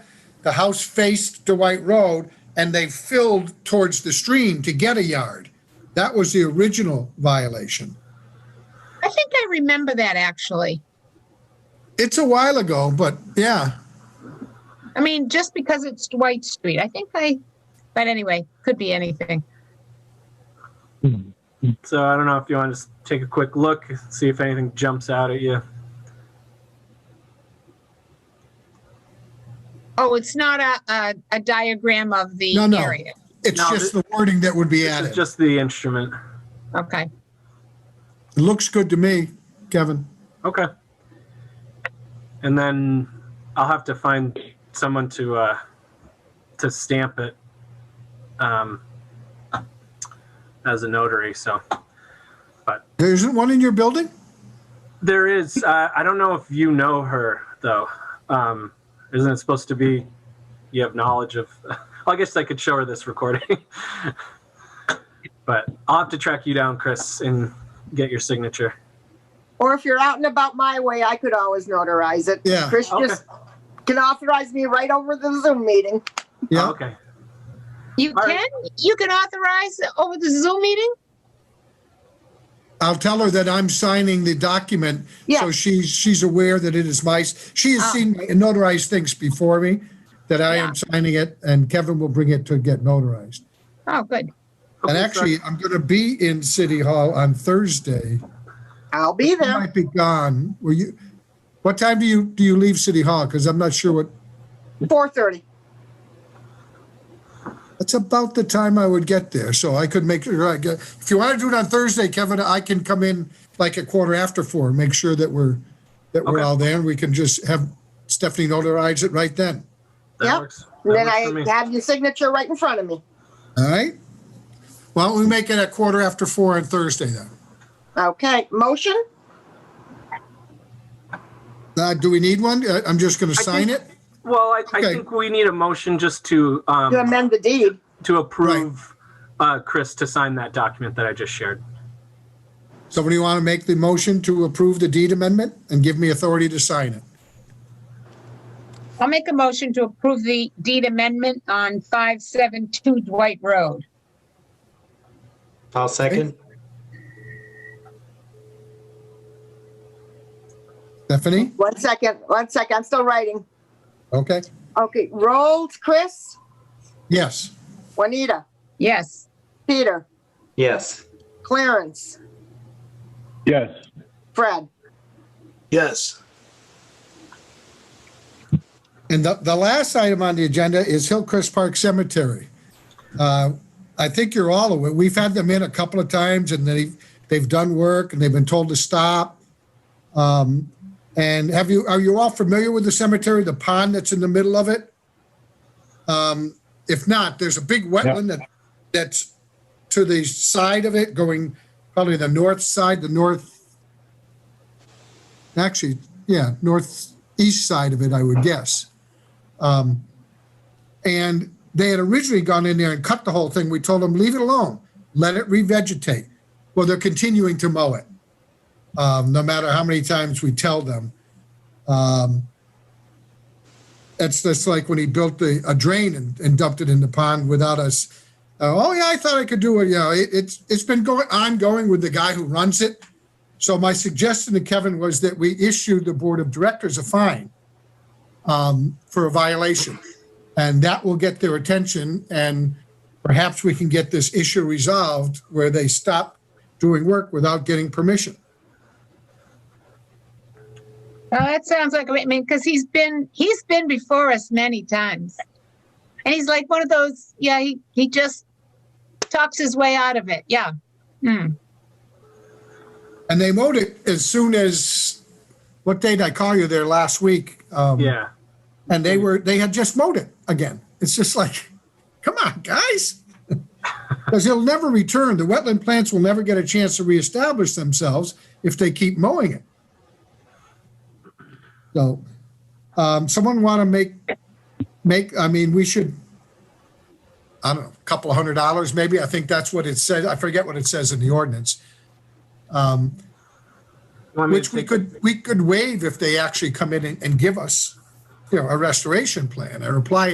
the house faced Dwight Road and they filled towards the stream to get a yard. That was the original violation. I think I remember that actually. It's a while ago, but yeah, I mean, just because it's Dwight Street, I think I, but anyway, could be anything. So I don't know if you want to just take a quick look, see if anything jumps out at you. Oh, it's not a, a, a diagram of the No, no. area. it's No, just the wording that would be This is added. just the instrument. Okay. It Looks good to me, Kevin. Okay. And then I'll have to find someone to uh, to stamp it um, as a notary. So There isn't one in your building? there is. Uh, I don't know if you know her though. Um, isn't it supposed to be? You have knowledge of. Well, I guess I could show her this recording. but I'll have to track you down, Chris, and get your signature. Or if you're out and about my way, I could always notarize it. Yeah. Chris Okay. just can authorize me right over the Zoom meeting. Yeah. Oh, okay. You All can, right. you can authorize over the Zoom meeting? I'll tell her that I'm signing the document. Yeah. So she's, she's aware that it is my, she has Oh. Ah. seen my notarized things before me, that I am signing it and Kevin will bring it to get notarized. Oh, good. And Okay, actually, I'm going to be in City Hall on Thursday. I'll be I there. might be gone. Will you, what time do you, do you leave City Hall? Because I'm not sure what, Four thirty. that's about the time I would get there. So I could make, sure I get- if you want to do it on Thursday, Kevin, I can come in like a quarter after four, make sure that we're, that we're Okay. all there and we can just have Stephanie notarize it right then. that Yep. works. That And then works for me. I have your signature right in front of me. All right? Why don't we make it a quarter after four on Thursday then? Okay, motion? Uh, do we need one? Uh, I'm just going to I sign think- it. Well, I, I Okay. think we need a motion just to, To um, amend the deed. to approve, uh, Chris to sign that document that I just shared. Somebody want to make the motion to approve the deed amendment and give me authority to sign it? I'll make a motion to approve the deed amendment on 572 Dwight Road. I'll second. Stephanie? One second, one second. I'm still writing. Okay. Okay, Rolls, Chris, Yes. Juanita, Yes. Peter, Yes. Clarence, Yes. Fred. Yes. And the, the last item on the agenda is Hillcrest Park Cemetery. Uh, I think you're all aware, we've had them in a couple of times and they, they've done work and they've been told to stop. Um, And have you, are you all familiar with the cemetery, the pond that's in the middle of it? Um, If not, there's a big wetland that, that's to the side of it, going probably the north side, the north, actually, yeah, northeast side of it, I would guess. Um, And they had originally gone in there and cut the whole thing. We told them, leave it alone, let it revegetate. Well, they're continuing to mow it, um, no matter how many times we tell them. Um, It's just like when he built the, a drain and- and dumped it in the pond without us. uh, Oh, yeah, I thought I could do it, you know, it, it's, it's been going, ongoing with the guy who runs it. So my suggestion to Kevin was that we issue the board of directors a fine um, for a violation. And that will get their attention and perhaps we can get this issue resolved where they stop doing work without getting permission. Well, Oh, that sounds like, I mean, because he's been, he's been before us many times. And he's like one of those, yeah, he, he just talks his way out of it. Yeah. Hmm. And they mowed it as soon as, what day did I call you there last week? Um, Yeah. And they were, they had just mowed it again. It's just like, come on, guys. Because it'll never return. The wetland plants will never get a chance to reestablish themselves if they keep mowing it. So, um, someone want to make, make, I mean, we should, I don't know, a couple hundred dollars maybe. I think that's what it says. I forget what it says in the ordinance. Um, You want me to which we take- could, we could waive if they actually come in and, and give us, you know, a restoration plan or apply